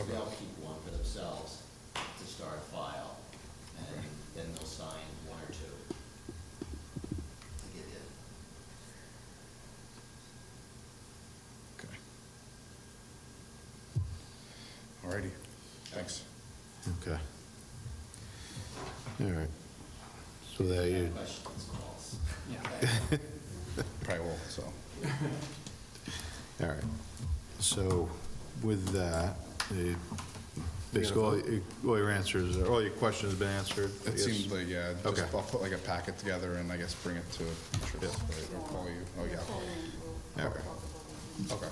Okay. They'll keep one for themselves to start a file, and Okay. then they'll sign one or two to get in. Okay. All righty, thanks. Okay. All right. So that you, Questions, calls. Probably will, so. all right. So with that, the- basically, all your- all your answers, all your questions have been answered. I It guess. seems like, yeah, just, Okay. I'll put like a packet together and I guess bring it to Trish, right, or call you, oh yeah. I'll call you. Yeah. Okay, okay,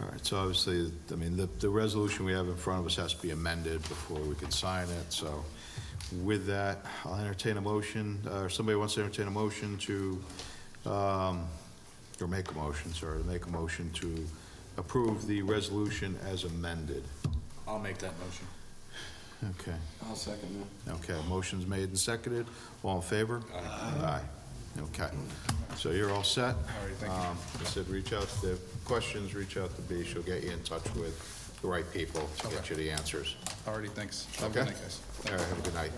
All right, so obviously, I mean, the, the resolution we have in front of us has to be amended before we can sign it, so with that, I'll entertain a motion, uh, or somebody wants to entertain a motion to, um, or make a motion, sorry, to make a motion to approve the resolution as amended. I'll make that motion. Okay, I'll second that. okay, motion's made and seconded, all in favor? Aye. okay, so you're all all set? right, thank you. Um, I said, reach out, to the questions, reach out to B, she'll get you in touch with the right people to get you the answers. All righty, thanks. Have a good Okay. night, guys. All right, have a good night.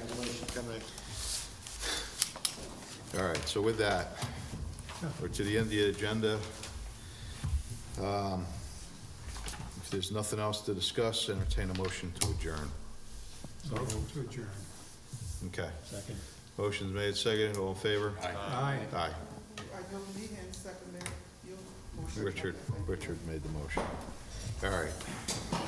All right, so with that, we're to the end of the agenda. Um, If there's nothing else to discuss, entertain a motion to adjourn. So move to adjourn. Okay, Second. motion's made, seconded, all in favor? Aye. Aye. I know Leanne seconded your motion. Richard, Richard made the motion. All right,